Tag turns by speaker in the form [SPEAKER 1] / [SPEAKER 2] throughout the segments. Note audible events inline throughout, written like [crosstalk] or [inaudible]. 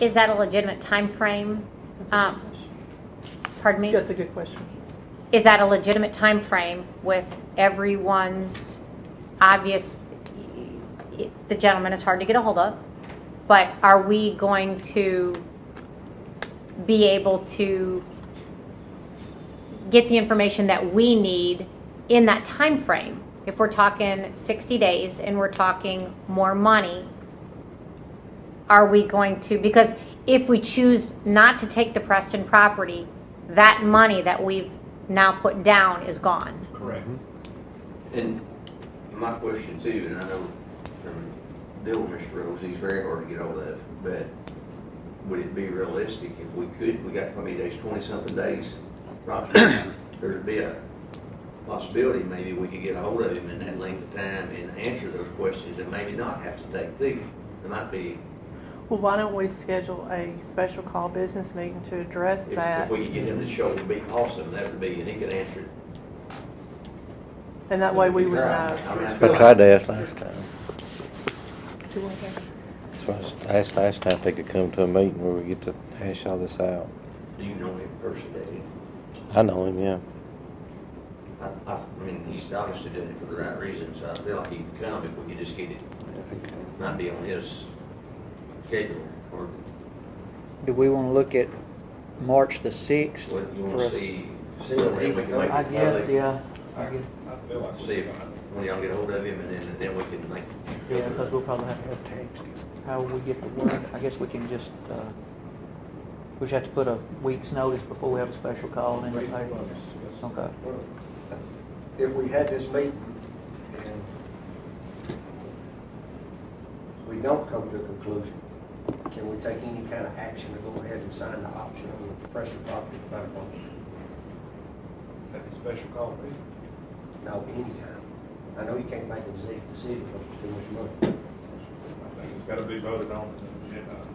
[SPEAKER 1] Is that a legitimate timeframe? Um, Pardon me?
[SPEAKER 2] That's a good question.
[SPEAKER 1] Is that a legitimate timeframe with everyone's obvious, the gentleman is hard to get a hold of, but are we going to be able to get the information that we need in that timeframe? If we're talking 60 days and we're talking more money, are we going to, because if we choose not to take the Preston property, that money that we've now put down is gone.
[SPEAKER 3] Correct.
[SPEAKER 4] And my question too, and I know from Bill, Mr. Rose, he's very hard to get hold of, but would it be realistic if we could, we got, how many days, twenty-something days, approximately, [coughs] there'd be a possibility maybe we could get a hold of him in that length of time and answer those questions and maybe not have to take two. It might be,
[SPEAKER 2] Well, why don't we schedule a special call business meeting to address
[SPEAKER 4] if, if
[SPEAKER 2] that?
[SPEAKER 4] we could get him to show, would be awesome, that would be, and he could answer it.
[SPEAKER 2] And that way we would
[SPEAKER 4] Right.
[SPEAKER 2] know.
[SPEAKER 4] I mean, I feel
[SPEAKER 5] I
[SPEAKER 4] like-
[SPEAKER 5] tried to ask last time. So I s- I asked last time if they could come to a meeting where we get to hash all this out.
[SPEAKER 4] Do you know him personally?
[SPEAKER 5] I know him, yeah.
[SPEAKER 4] I, I, I mean, he's obviously doing it for the right reason, so I feel like he can come if we could just get it, not be on his schedule, or,
[SPEAKER 6] Do we want to look at March the 6th?
[SPEAKER 4] what
[SPEAKER 6] for
[SPEAKER 4] you wanna
[SPEAKER 6] us?
[SPEAKER 4] see. See if we can make
[SPEAKER 6] I
[SPEAKER 4] it
[SPEAKER 6] guess,
[SPEAKER 4] public,
[SPEAKER 6] yeah. I guess,
[SPEAKER 4] See if, when y'all get hold of him, and then, and then we can make.
[SPEAKER 6] yeah, because we'll probably have to have tags. How will we get the word? I guess we can just, uh, we just have to put a week's notice before we have a special call in the paper. Okay.
[SPEAKER 7] If we had this meeting and we don't come to a conclusion, can we take any kind of action to go ahead and sign the option on the pressure property back on?
[SPEAKER 3] That's a special call, please.
[SPEAKER 7] No, anytime. I know you can't make a decision, decision for too much money.
[SPEAKER 3] I think it's gotta be voted on uh, in the agenda.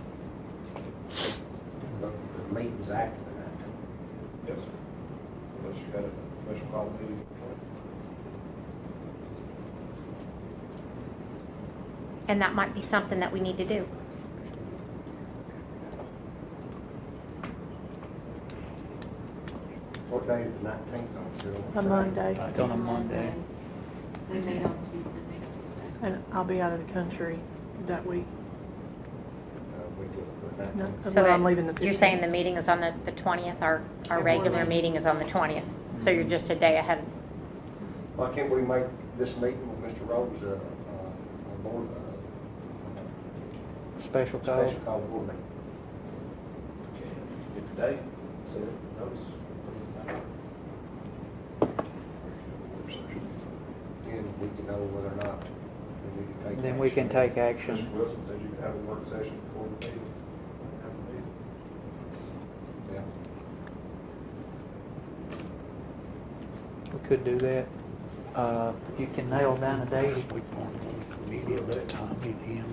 [SPEAKER 7] But The meeting's active tonight.
[SPEAKER 3] Yes, sir. Unless you had a special call meeting.
[SPEAKER 1] And that might be something that we need to do.
[SPEAKER 7] What day is the nineteenth on? Phil?
[SPEAKER 2] A Monday,
[SPEAKER 6] It's on a Monday.
[SPEAKER 8] We meet on Tuesday, next Tuesday.
[SPEAKER 2] and I'll be out of the country that week.
[SPEAKER 7] Uh, We do it the
[SPEAKER 2] No,
[SPEAKER 7] nineteenth.
[SPEAKER 1] So
[SPEAKER 2] I'm
[SPEAKER 1] that-
[SPEAKER 2] leaving the
[SPEAKER 1] You're
[SPEAKER 2] 15th.
[SPEAKER 1] saying the meeting is on the the 20th, our, our regular meeting is on the 20th, so you're just a day ahead.
[SPEAKER 7] Why can't we make this meeting with Mr. Rhodes, uh, uh, a board, uh,
[SPEAKER 6] Special call.
[SPEAKER 7] special call board meeting?
[SPEAKER 3] Get the date, set it, notice.
[SPEAKER 7] And we can know whether or not we need to take.
[SPEAKER 6] Then we can take
[SPEAKER 3] Mr.
[SPEAKER 6] action.
[SPEAKER 3] Wilson said you could have a work session before the meeting. Have a meeting.
[SPEAKER 7] Yeah.
[SPEAKER 6] We could do that. Uh, If you can nail down a date,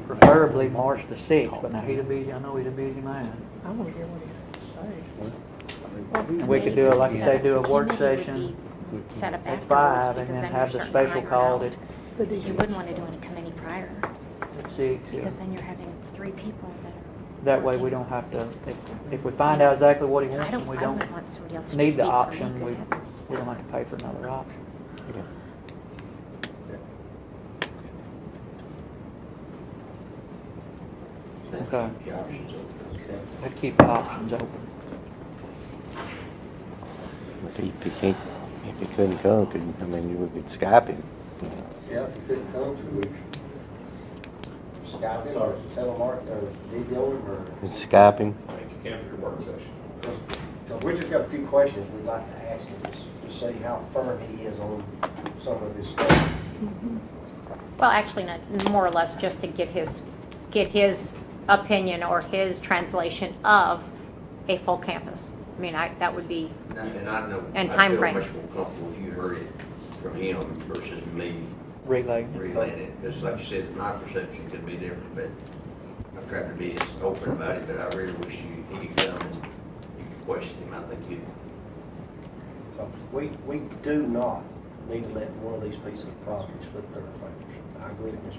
[SPEAKER 6] preferably March the 6th, but now he's a busy, I know he's a busy man.
[SPEAKER 2] I want to hear what he has to say.
[SPEAKER 6] And we could do, like you say, do a work
[SPEAKER 1] Committee would
[SPEAKER 6] session
[SPEAKER 1] be Set up
[SPEAKER 6] at
[SPEAKER 1] afterwards.
[SPEAKER 6] five and
[SPEAKER 1] because
[SPEAKER 6] then
[SPEAKER 1] you're
[SPEAKER 6] have the
[SPEAKER 1] starting to
[SPEAKER 6] special
[SPEAKER 1] iron
[SPEAKER 6] call
[SPEAKER 1] out.
[SPEAKER 6] at
[SPEAKER 2] But did
[SPEAKER 1] You wouldn't want to do it in a committee prior,
[SPEAKER 6] at six. yeah.
[SPEAKER 1] because then you're having three people that
[SPEAKER 6] That way we don't have to, if, if we find out exactly what he
[SPEAKER 1] are, I
[SPEAKER 6] wants
[SPEAKER 1] don't,
[SPEAKER 6] and we
[SPEAKER 1] I
[SPEAKER 6] don't,
[SPEAKER 1] wouldn't want somebody else to
[SPEAKER 6] need the
[SPEAKER 1] speak for me
[SPEAKER 6] option,
[SPEAKER 1] if it
[SPEAKER 6] we-
[SPEAKER 1] happens.
[SPEAKER 6] we don't have to pay for another option. Okay.
[SPEAKER 4] The options open.
[SPEAKER 6] I'd keep the options open.
[SPEAKER 5] If he, if he can't, if he couldn't come, could, I mean, we could Skype him. you know.
[SPEAKER 7] Yeah, if you couldn't come to it. Skype him or telemark or video him or,
[SPEAKER 5] Just Skype him.
[SPEAKER 3] I think you can for your work session.
[SPEAKER 7] because we just got a few questions we'd like to ask him just to see how firm he is on some of his stuff.
[SPEAKER 1] Well, actually, not, more or less just to get his, get his opinion or his translation of a full campus. I mean, I, that would be,
[SPEAKER 4] And I- And I know.
[SPEAKER 1] And
[SPEAKER 4] I feel
[SPEAKER 1] timeframes.
[SPEAKER 4] Much more comfortable if you heard it from him versus me
[SPEAKER 6] Relay.
[SPEAKER 4] relaying it, because like you said, my perception could be different, but I've tried to be as open about it, but I really wish you, he could come and you could question him, I think you'd
[SPEAKER 7] So We, we do not need to let one of these pieces of property slip through our fingers. I agree with Mr.